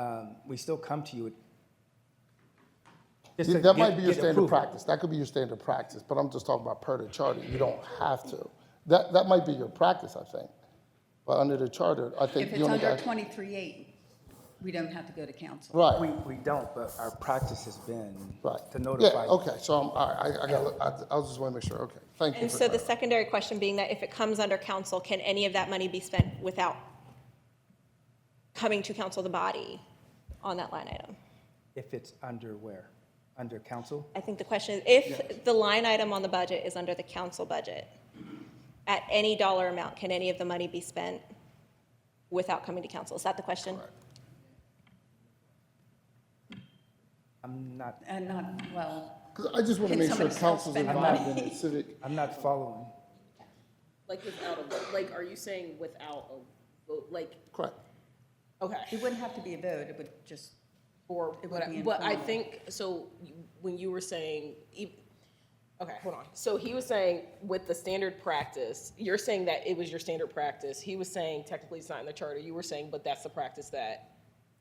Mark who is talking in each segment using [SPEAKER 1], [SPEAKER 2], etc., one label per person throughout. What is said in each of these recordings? [SPEAKER 1] um, we still come to you. just to
[SPEAKER 2] That might
[SPEAKER 1] get-
[SPEAKER 2] be your
[SPEAKER 1] get
[SPEAKER 2] standard
[SPEAKER 1] approval.
[SPEAKER 2] practice. That could be your standard practice, but I'm just talking about per the charter. You don't have to. That, that might be your practice, I think. But under the charter, I think
[SPEAKER 3] If
[SPEAKER 2] you
[SPEAKER 3] it's
[SPEAKER 2] only
[SPEAKER 3] under
[SPEAKER 2] got,
[SPEAKER 3] twenty-three eight, we don't have to go to council.
[SPEAKER 1] We,
[SPEAKER 2] right,
[SPEAKER 1] we don't, but our practice has been
[SPEAKER 2] right.
[SPEAKER 1] to
[SPEAKER 2] Yeah,
[SPEAKER 1] notify.
[SPEAKER 2] okay, so I'm, all right, I, I got, I, I was just want to make sure, okay. Thank you.
[SPEAKER 4] And
[SPEAKER 2] for
[SPEAKER 4] so the
[SPEAKER 2] clarifying.
[SPEAKER 4] secondary question being that if it comes under council, can any of that money be spent without coming to council, the body, on that line item?
[SPEAKER 1] If it's under where? Under council?
[SPEAKER 4] I think the question is, if the line item on the budget is under the council budget, at any dollar amount, can any of the money be spent without coming to council? Is that the question?
[SPEAKER 1] I'm not,
[SPEAKER 3] And not, well,
[SPEAKER 2] 'Cause I just want to
[SPEAKER 3] Can
[SPEAKER 2] make sure
[SPEAKER 3] somebody
[SPEAKER 2] council's
[SPEAKER 3] spend
[SPEAKER 2] involved in
[SPEAKER 3] money?
[SPEAKER 2] the civic.
[SPEAKER 1] I'm not following.
[SPEAKER 5] Like without a, vote. like, are you saying without a vote, like,
[SPEAKER 2] Correct.
[SPEAKER 5] okay.
[SPEAKER 3] it wouldn't have to be a vote, it would just,
[SPEAKER 5] Or,
[SPEAKER 3] It would
[SPEAKER 5] what I-
[SPEAKER 3] be
[SPEAKER 5] but I
[SPEAKER 3] informal.
[SPEAKER 5] think, so you- when you were saying, e- okay, hold on. So he was saying with the standard practice, you're saying that it was your standard practice. He was saying technically it's not in the charter. You were saying, but that's the practice that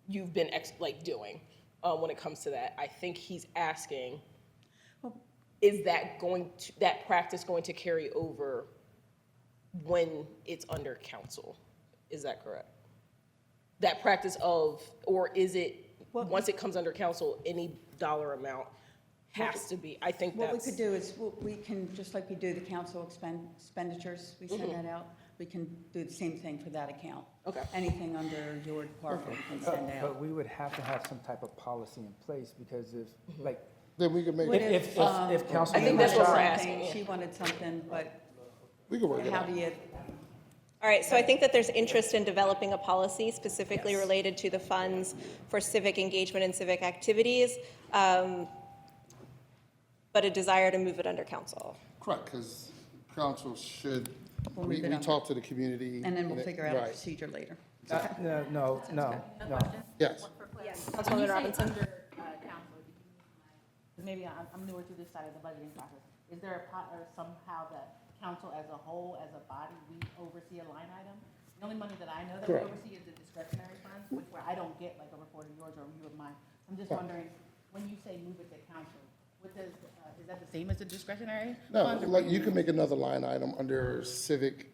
[SPEAKER 5] you've been ex, like doing, uh, when it comes to that. I think he's asking, is that going to, that practice going to carry over when it's under council? Is that correct? that practice of, or is it, once it comes under council, any dollar amount has to be, I think
[SPEAKER 3] what we could
[SPEAKER 5] that's,
[SPEAKER 3] do is, we- we can, just like we do the council expend- expenditures, we send
[SPEAKER 2] Mm-hmm.
[SPEAKER 3] that out, we can do the same thing for that account.
[SPEAKER 5] Okay.
[SPEAKER 3] Anything under your department, we can send out.
[SPEAKER 1] But we would have to have some type of policy in place because if, like,
[SPEAKER 2] Then we can make,
[SPEAKER 3] What
[SPEAKER 1] if,
[SPEAKER 2] it-
[SPEAKER 1] if,
[SPEAKER 3] um,
[SPEAKER 1] if
[SPEAKER 5] I think
[SPEAKER 1] council,
[SPEAKER 5] that's what we're
[SPEAKER 3] Wanted
[SPEAKER 5] asking,
[SPEAKER 3] something,
[SPEAKER 5] yeah.
[SPEAKER 3] She wanted something, but
[SPEAKER 2] we can work it
[SPEAKER 3] how
[SPEAKER 2] out.
[SPEAKER 3] do you,
[SPEAKER 4] All right, so I think that there's interest in developing a policy specifically related to the funds for civic engagement and civic activities, um, but a desire to move it under council.
[SPEAKER 2] Correct, because council should,
[SPEAKER 3] We'll
[SPEAKER 2] we,
[SPEAKER 3] leave it
[SPEAKER 2] we
[SPEAKER 3] on.
[SPEAKER 2] talk to the community.
[SPEAKER 3] and then we'll
[SPEAKER 2] it-
[SPEAKER 3] figure out a
[SPEAKER 2] right.
[SPEAKER 3] procedure later.
[SPEAKER 1] Uh, no, no, no, no.
[SPEAKER 2] Yes.
[SPEAKER 4] Councilwoman Robinson.
[SPEAKER 6] When you say under uh, council, did you mean like- maybe I'm I'm newer to this side of the budgeting process. Is there a pot or somehow that council as a whole, as a body, we oversee a line item? The only money that I know that we
[SPEAKER 2] Correct.
[SPEAKER 6] oversee is the discretionary funds, which where I don't get like a report of yours or a review of mine. I'm just wondering, when you say move it to council, what does, uh, is that the same as the discretionary?
[SPEAKER 2] No,
[SPEAKER 6] funds or-
[SPEAKER 2] like, you can make another line item under civic,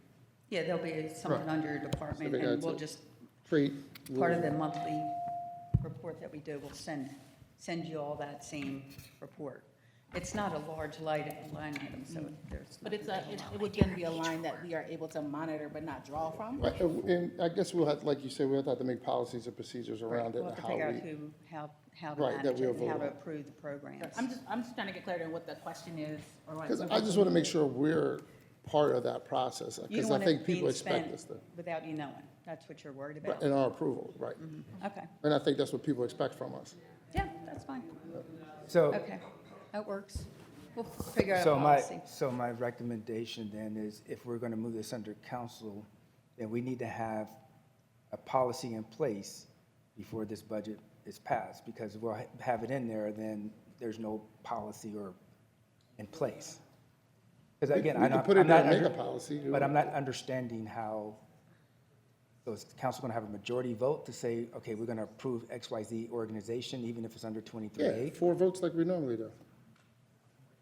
[SPEAKER 3] Yeah, there'll be something
[SPEAKER 2] Right.
[SPEAKER 3] under your department,
[SPEAKER 2] Civic
[SPEAKER 3] and we'll
[SPEAKER 2] acti-
[SPEAKER 3] just
[SPEAKER 2] create.
[SPEAKER 3] part of the monthly report that we do, we'll send, send you all that same report. It's not a large light, line item, so
[SPEAKER 2] Mm.
[SPEAKER 3] there's.
[SPEAKER 6] But it's a, it it would then be a line that we are able to monitor but not draw from?
[SPEAKER 2] Right, And and I guess we'll have, like you said, we'll have to make policies and procedures around it.
[SPEAKER 3] We'll have to
[SPEAKER 2] how
[SPEAKER 3] figure out
[SPEAKER 2] we-
[SPEAKER 3] who, how, how to
[SPEAKER 2] Right, that
[SPEAKER 3] manage
[SPEAKER 2] we
[SPEAKER 3] it, and how
[SPEAKER 2] overlap.
[SPEAKER 3] to approve the programs.
[SPEAKER 6] I'm just, I'm just trying to get clarity on what the question is or what.
[SPEAKER 2] Because I just want to make sure we're part of that process,
[SPEAKER 3] You
[SPEAKER 2] because
[SPEAKER 3] don't
[SPEAKER 2] I
[SPEAKER 3] want it
[SPEAKER 2] think people
[SPEAKER 3] being
[SPEAKER 2] expect
[SPEAKER 3] spent
[SPEAKER 2] us to,
[SPEAKER 3] without you knowing, that's what you're worried about.
[SPEAKER 2] and our approval, right?
[SPEAKER 3] Okay,
[SPEAKER 2] And I think that's what people expect from us.
[SPEAKER 3] yeah, that's fine,
[SPEAKER 1] So,
[SPEAKER 3] okay, that works. We'll figure out a
[SPEAKER 1] so my,
[SPEAKER 3] policy.
[SPEAKER 1] so my recommendation then is if we're gonna move this under council, then we need to have a policy in place before this budget is passed, because if we'll ha- have it in there, then there's no policy or in place. Because
[SPEAKER 2] We-
[SPEAKER 1] again,
[SPEAKER 2] we
[SPEAKER 1] I'm
[SPEAKER 2] can
[SPEAKER 1] not,
[SPEAKER 2] put it
[SPEAKER 1] I'm not
[SPEAKER 2] there and make
[SPEAKER 1] under-
[SPEAKER 2] a policy, you
[SPEAKER 1] But
[SPEAKER 2] know.
[SPEAKER 1] I'm not understanding how, so is the council gonna have a majority vote to say, okay, we're gonna approve X, Y, Z organization, even if it's under twenty-three
[SPEAKER 2] Yeah,
[SPEAKER 1] A?
[SPEAKER 2] four votes like we normally do.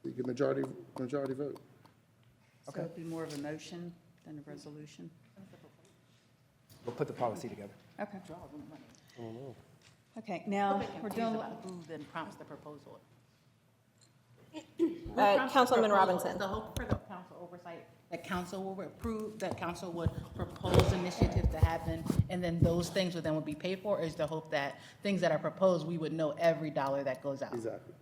[SPEAKER 2] You get majority, majority vote.
[SPEAKER 3] So it'd be more of a motion than a resolution,
[SPEAKER 1] We'll put the policy together.
[SPEAKER 3] okay.
[SPEAKER 6] Draw the money.
[SPEAKER 3] Okay,
[SPEAKER 6] I'm a
[SPEAKER 3] now,
[SPEAKER 6] bit
[SPEAKER 3] we're
[SPEAKER 6] confused
[SPEAKER 3] doing,
[SPEAKER 6] about who then prompts the proposal.
[SPEAKER 4] Uh,
[SPEAKER 6] Who prompts the
[SPEAKER 4] Councilwoman
[SPEAKER 6] proposal?
[SPEAKER 4] Robinson.
[SPEAKER 6] Is the hope for the council oversight, that council will approve, that council would propose initiatives to happen, and then those things would then would be paid for? Or is the hope that things that are proposed, we would know every dollar that goes out?
[SPEAKER 2] Exactly.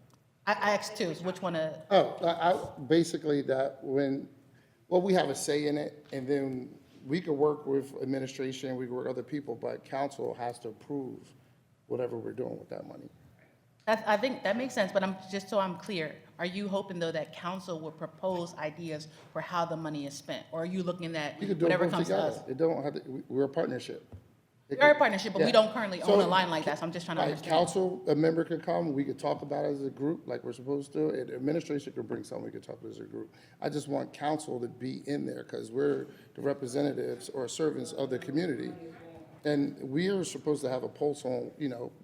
[SPEAKER 6] I, I asked two, so which one, uh,
[SPEAKER 2] Oh, I, I, basically that when, well, we have a say in it, and then we could work with administration, we could work with other people, but council has to approve whatever we're doing with that money.
[SPEAKER 6] I, I think that makes sense, but I'm, just so I'm clear, are you hoping though that council will propose ideas for how the money is spent? Or are you looking at
[SPEAKER 2] We could do it
[SPEAKER 6] whatever
[SPEAKER 2] both
[SPEAKER 6] comes to us?
[SPEAKER 2] together. It don't have to, we- we're a partnership. It
[SPEAKER 6] We're a
[SPEAKER 2] could-
[SPEAKER 6] partnership, but we
[SPEAKER 2] yeah.
[SPEAKER 6] don't currently
[SPEAKER 2] So,
[SPEAKER 6] own a line like that, so I'm just trying to
[SPEAKER 2] Like,
[SPEAKER 6] understand.
[SPEAKER 2] council, a member could come, we could talk about it as a group, like we're supposed to, and administration could bring something, we could talk about it as a group. I just want council to be in there, because we're the representatives or servants of the community. And we are supposed to have a pulse on, you know,